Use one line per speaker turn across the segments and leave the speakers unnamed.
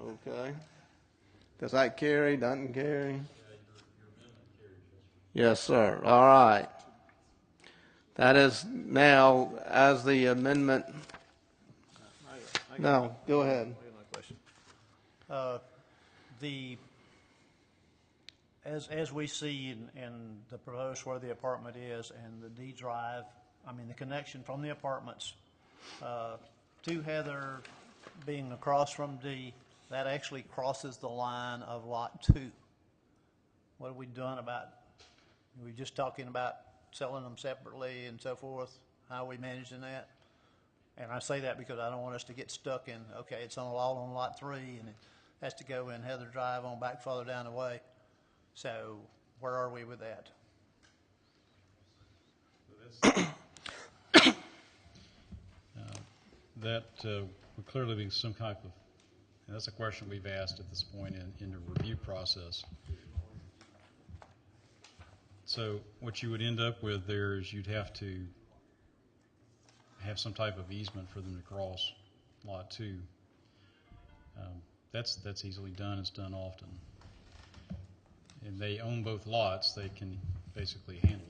Okay. Does that carry? Doesn't carry? Yes, sir. All right. That is now as the amendment. No, go ahead.
My question. Uh, The, as, as we see in, in the proposed where the apartment is and the D drive, I mean, the connection from the apartments uh, to Heather being across from D, that actually crosses the line of Lot 2. What have we done about, we were just talking about selling them separately and so forth, how are we managing that? And I say that because I don't want us to get stuck in, okay, it's on, all on lot three, and it has to go in Heather Drive on back further down the way. So where are we with that?
That uh, would clearly be some type of, and that's a question we've asked at this point in, in the review process. So what you would end up with there is you'd have to have some type of easement for them to cross Lot 2. Um, That's, that's easily done, it's done often. And they own both lots, they can basically handle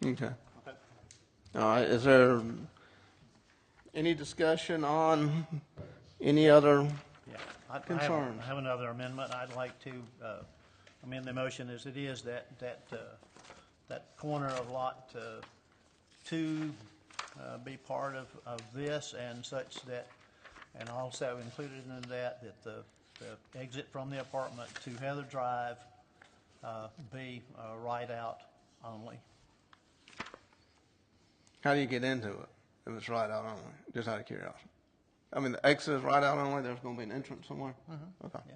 that.
Okay. All right, is there any discussion on any other?
Yeah, I- I have-
Concerns.
I have another amendment. I'd like to uh, amend the motion as it is that, that, uh, that corner of Lot uh, 2 uh, be part of, of this and such that, and also included in that, that the, the exit from the apartment to Heather Drive uh, be uh, right out only.
How do you get into it if it's right out only? Just out of curiosity. I mean, the exit is right out only. There's going to be an entrance somewhere. Okay.
yeah.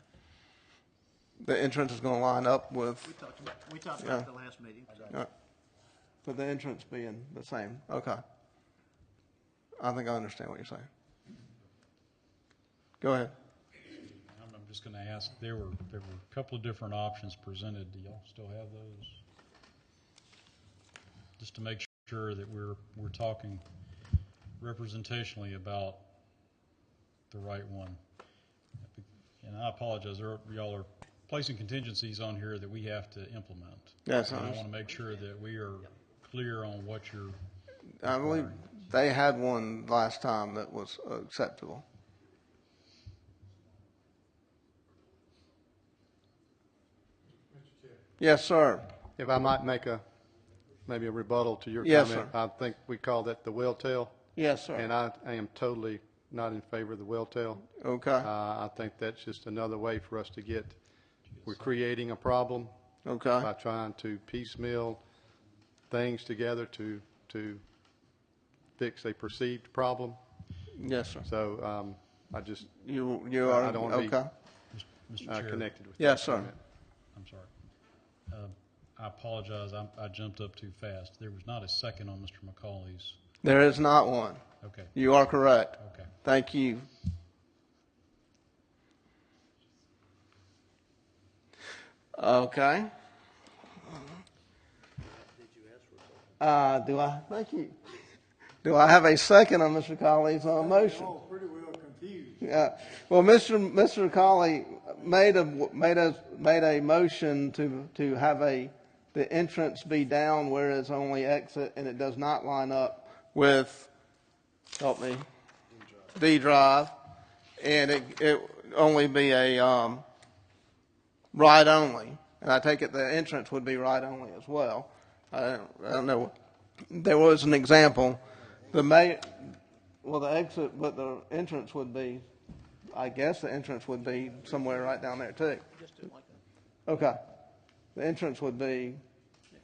The entrance is going to line up with,
We talked about, we talked
about Yeah.
about it
the
the last meeting.
uh, with the entrance being the same. Okay. I think I understand what you're saying. Go ahead.
I'm I'm just going to ask, there were, there were a couple of different options presented. Do y'all still have those? Just to make sure that we're, we're talking representationally about the right one. And I apologize, there- y'all are placing contingencies on here that we have to implement.
Yes, I
And I
understand.
want to make sure that we are clear on what you're,
I believe they had one last time that was acceptable. Yes, sir.
If I might make a, maybe a rebuttal to your
Yes,
comment.
sir.
I think we call that the well tail,
Yes, sir.
and I, I am totally not in favor of the well tail.
okay.
Uh, I think that's just another way for us to get, we're creating a problem
okay.
by trying to piecemeal things together to, to fix a perceived problem.
yes, sir.
So, um, I just,
You you
I-
are
I don't wanna be-
okay.
Mr.
uh,
Chair.
connected with.
Yes,
that
sir.
comment.
I'm sorry. Um, I apologize, I'm- I jumped up too fast. There was not a second on Mr. McCauley's.
There is not one.
Okay,
You are correct.
okay.
Thank you. Okay. Uh, do I, thank you. Do I have a second on Mr. Colley's uh, motion?
all pretty well confused.
Yeah. Well, Mr. Mr. Colley made a, made a, made a motion to, to have a, the entrance be down where it's only exit and it does not line up with, help me, D drive. And it, it only be a, um, right only. And I take it the entrance would be right only as well. I don't, I don't know. There was an example. The may, well, the exit, but the entrance would be, I guess the entrance would be somewhere right down there too. Okay. The entrance would be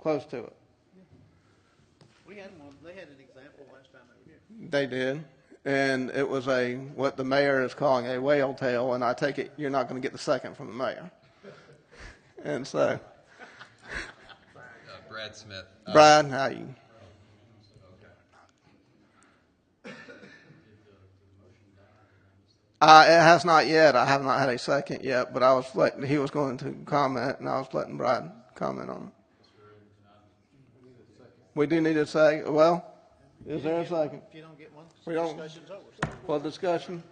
close to it.
We had one, they had an example last time over here.
They did. And it was a, what the mayor is calling a whale tail, and I take it you're not going to get the second from the mayor. And so,
Uh, Brad Smith. Uh,
Brian, how you? Uh, it has not yet. I have not had a second yet, but I was letting, he was going to comment, and I was letting Brian comment on it. We do need a second. Well, is there a second?
If you don't get one,
We don't-
discussion's over.
Well, discussion?